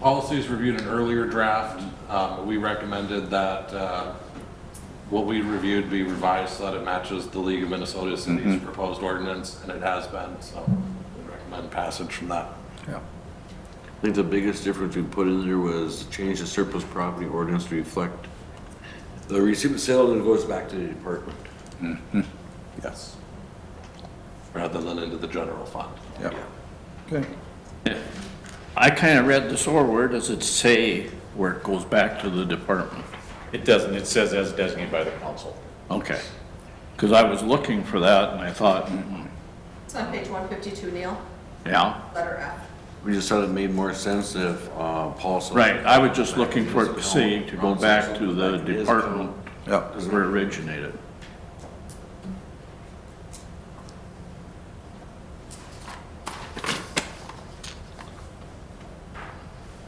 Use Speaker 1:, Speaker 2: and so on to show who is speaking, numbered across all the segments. Speaker 1: Policies reviewed an earlier draft. Um, We recommended that uh, what we reviewed be revised so that it matches the League of Minnesota Cities proposed ordinance, and it has been, so we recommend passage from that.
Speaker 2: I think the biggest difference we put in there was change the surplus property ordinance to reflect the receipt and sale, then it goes back to the department.
Speaker 1: Yes. Rather than into the general fund.
Speaker 3: Yep. Okay.
Speaker 4: I kind of read this over, where does it say where it goes back to the department?
Speaker 5: It doesn't, it says as designated by the council.
Speaker 4: Okay. Because I was looking for that and I thought, mm,
Speaker 6: It's on page 152, Neil,
Speaker 4: yeah,
Speaker 6: letter F.
Speaker 2: We just thought it made more sense if, uh, policy.
Speaker 4: right, I was just looking for it to say to go back to the department
Speaker 3: Yep.
Speaker 4: as where it originated.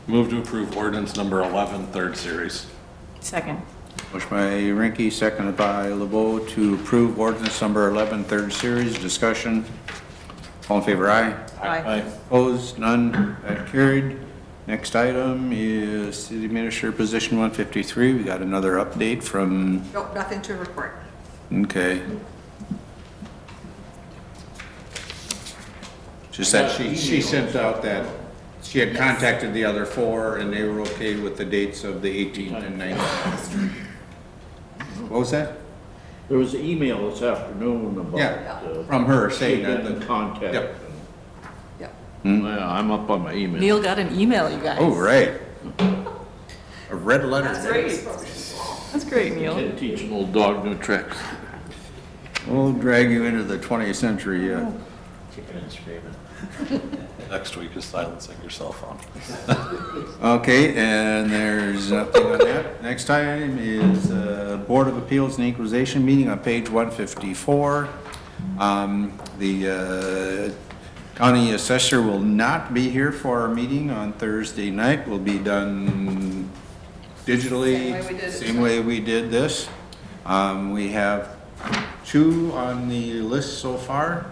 Speaker 1: Move to approve ordinance number 11, third series.
Speaker 7: Second.
Speaker 3: Motion by Rinky, seconded by LeBeau to approve ordinance number 11, third series. Discussion. All in favor, aye.
Speaker 7: Aye.
Speaker 3: Opposed, none, that carried. Next item is city administrator position 153. We got another update from,
Speaker 6: Nope, nothing to report.
Speaker 3: okay. Just that she, she sent out that, she had contacted the other four and they were okay with the dates of the 18th and 19th. What was that?
Speaker 4: There was an email this afternoon
Speaker 3: Yeah,
Speaker 4: uh,
Speaker 3: from her saying
Speaker 4: she'd been
Speaker 3: that. the-
Speaker 4: contact.
Speaker 3: Yep.
Speaker 6: Yep.
Speaker 4: Hmm, Yeah, I'm up on my email.
Speaker 7: Neil got an email, you guys.
Speaker 3: Oh, right. A red letter.
Speaker 7: Great. That's great, Neil.
Speaker 4: Can't Teach an old dog new tricks.
Speaker 3: We'll drag you into the 20th century, yeah.
Speaker 5: Kicking and screaming.
Speaker 1: Next week is silencing your cell phone.
Speaker 3: Okay, and there's nothing on that. Next item is uh, Board of Appeals and Equalization meeting on page 154. Um, The uh, county assessor will not be here for our meeting on Thursday night. Will be done digitally.
Speaker 6: Same way we did it.
Speaker 3: Same way we did this. Um, We have two on the list so far.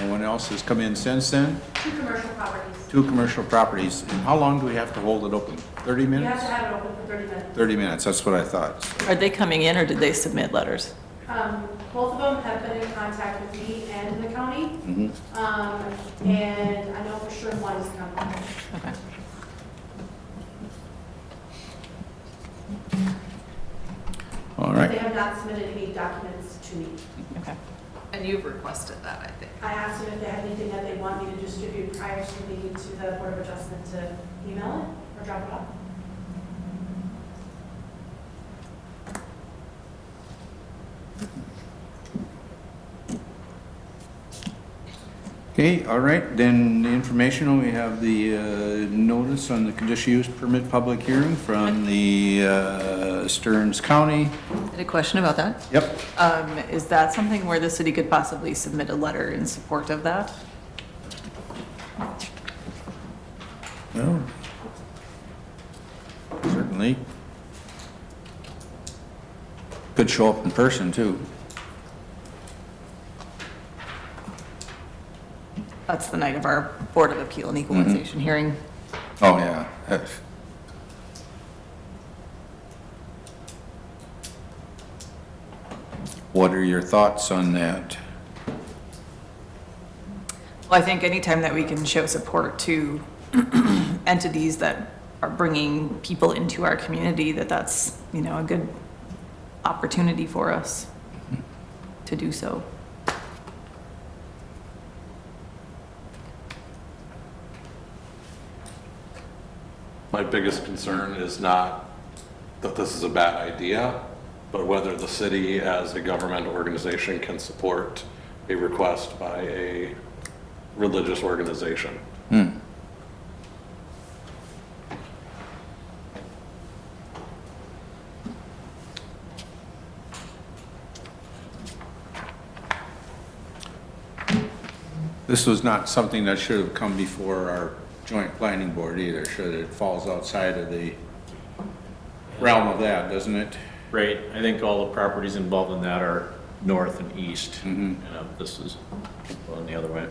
Speaker 3: No one else has come in since then
Speaker 6: Two commercial properties.
Speaker 3: two commercial properties. And how long do we have to hold it open? 30 minutes?
Speaker 6: have it open for 30 minutes.
Speaker 3: 30 minutes, that's what I thought.
Speaker 7: Are they coming in or did they submit letters?
Speaker 8: Um, both of them have been in contact with me and the county. Um, and I know for sure one is coming.
Speaker 3: All
Speaker 8: They
Speaker 3: right.
Speaker 8: have not submitted any documents to me.
Speaker 7: Okay.
Speaker 6: And you've requested that, I think.
Speaker 8: I asked them if they had anything that they want me to distribute prior to the, to the Board of Adjustment to email it or drop it off.
Speaker 3: Okay, all right, then the informational, we have the uh, notice on the conditional use permit public hearing from the uh, Stearns County.
Speaker 7: I had a question about that.
Speaker 3: Yep.
Speaker 7: Um, is that something where the city could possibly submit a letter in support of that?
Speaker 3: Well, Certainly. Could show up in person, too.
Speaker 7: That's the night of our Board of Appeal and Equalization hearing.
Speaker 3: Oh, yeah. What are your thoughts on that?
Speaker 7: Well, I think anytime that we can show support to entities that are bringing people into our community, that that's, you know, a good opportunity for us to do so.
Speaker 1: My biggest concern is not that this is a bad idea, but whether the city as a government organization can support a request by a religious organization.
Speaker 3: This was not something that should have come before our joint planning board either, should it? It falls outside of the realm of that, doesn't it?
Speaker 5: Right, I think all the properties involved in that are north and east. And uh, this is going the other way.